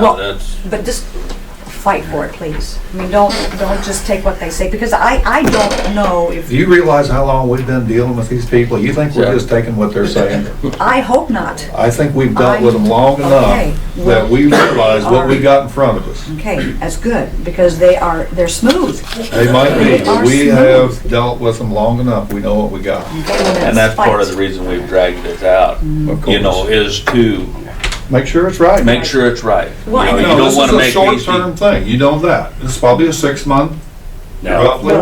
Well- That's, But just fight for it, please. I mean, don't, don't just take what they say, because I, I don't know if, Do you realize how long we've been dealing with these people? You think Yeah. we're just taking what they're saying? I hope not. I think we've dealt with them long Okay. enough that we realize what we got in front of us. Okay, that's good, because they are, they're smooth. They might be, but we They are have smooth. Mm-hmm. dealt with them long enough, we know what we got. and that's part of the reason we've dragged this out, Of you know, course. is to Make sure it's right. make sure it's right. You know, Right. you No, don't wanna This make is a these short-term people. thing, you know that. This is probably a six-month, No. roughly.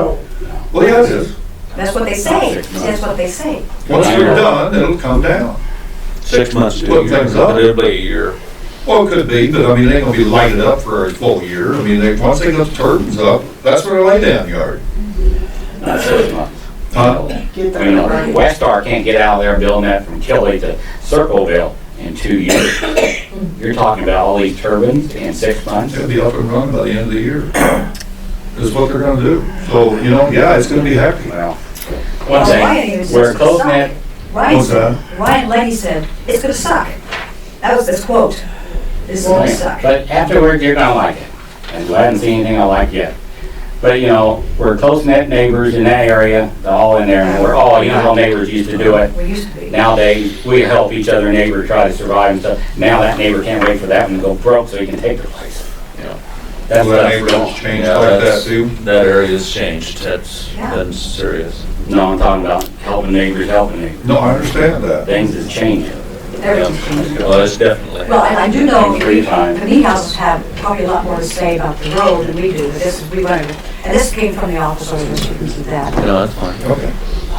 Well, yeah, it is. That's what they say, that's what they say. Once you're done, it'll come down. Six months, to a Look year, things up. but it'll be a year. Well, it could be, but I mean, they ain't gonna be lighted up for a full year. I mean, they, once they get the turbines up, that's where they lay down yard. Not six months. Huh? You know, Westar can't get out of there building that from Kelly to Circleville in two years. You're talking about all these turbines in six months? It'll be up and running by the end of the year. Is what they're gonna do. So, you know, yeah, it's gonna be happy. Well, one Well, Ryan even thing, says we're it's closing gonna it, suck. Ryan, What's that? said- Ryan Leahy said, "It's gonna suck." That was his quote. "This is gonna suck." but afterward, you're gonna like it. And I haven't seen anything I like yet. But, you know, we're close-knit neighbors in that area, they're all in there, and we're all, you know, how neighbors used to do it. We used to be. Nowadays, we help each other neighbor try to survive and stuff. Now that neighbor can't wait for that one to go broke so he can take their place, you know? That's Well, what that I'm neighborhood's doing. changed Yeah, like that that's- too. That area's changed, that's Yeah. been serious. No, I'm talking about helping neighbors, helping neighbors. No, I understand that. Things is changing. Everything's changed. Well, it's definitely. Well, and I do know Thank you for your time. the meat houses have probably a lot more to say about the road than we do, but this, we learned. And this came from the office, so we should keep that. No, that's fine. Okay.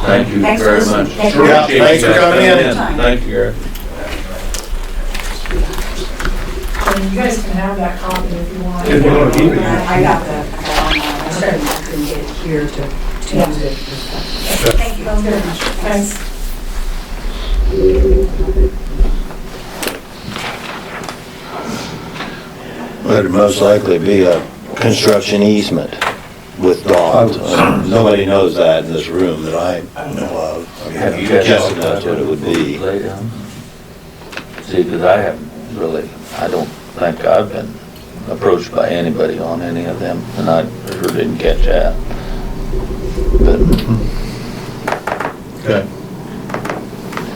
Thank you Thanks for very listening. much. Thank you. Yeah, thanks for coming in. Thank you, Eric. And you guys can have that copy if you want. If you wanna keep it. I I got the, uh, I got it online. I certainly couldn't get it here to, to use it. Thank you. Sounds good. Thanks. It'd most likely be a construction easement with dogs. Nobody knows that in this room that I know of. I mean, Have you guys Jessica talked about knows what it would be. Lay down. See, because I haven't really, I don't think I've been approached by anybody on any of them, and I sure didn't catch that. But, Okay.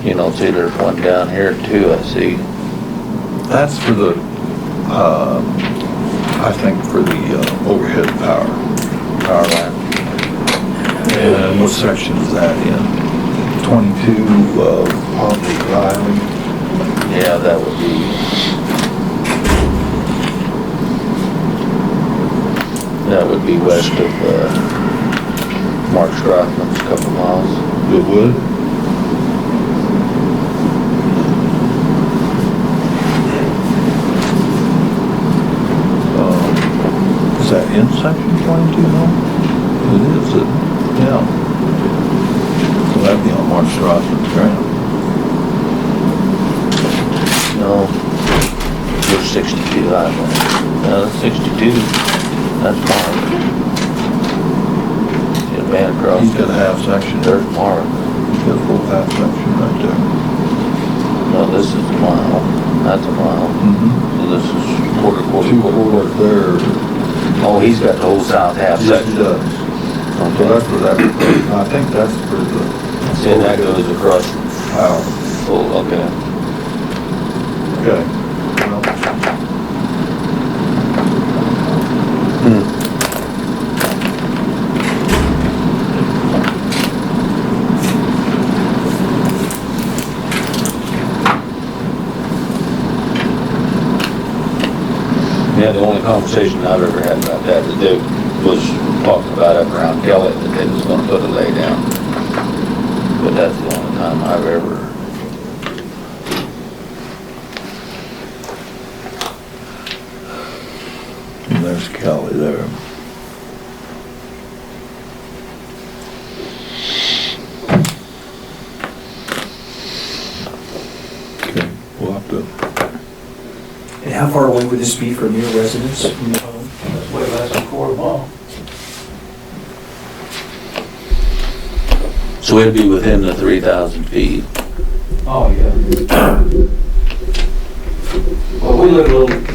you know, see, there's one down here too, I see. That's for the, uh, I think for the uh, overhead power, power line. And what section is that in? 22 of Pompey Drive. Yeah, that would be. That would be west of, uh, Mark Strothman's a couple miles. It would? Uh, Is that in section 22 now? It is, isn't it? yeah. So that'd be on March Rossman's ground. No, there's sixty-two highway. No, that's sixty-two, that's Mark. See a man across He's got a half section there. there's Mark. The full half section right there. No, this is a mile, that's a mile. Mm-hmm. So This is quarter, quarter, Two quarter. quarters there. Oh, he's got the whole south half Yes, section. it does. So Okay. that's for that, I think that's for the. See, that goes across, Wow, oh, okay. okay. Well, Yeah, the only conversation I've ever had about that to do was talking about up around Kelly that they was gonna put a lay down. But that's the only time I've ever, And there's Kelly there. Okay, we'll have to, And how far away would this be from your residence? from your home? way less than quarter mile. so it'd be within the three thousand feet. Oh, yeah. Well, we live a little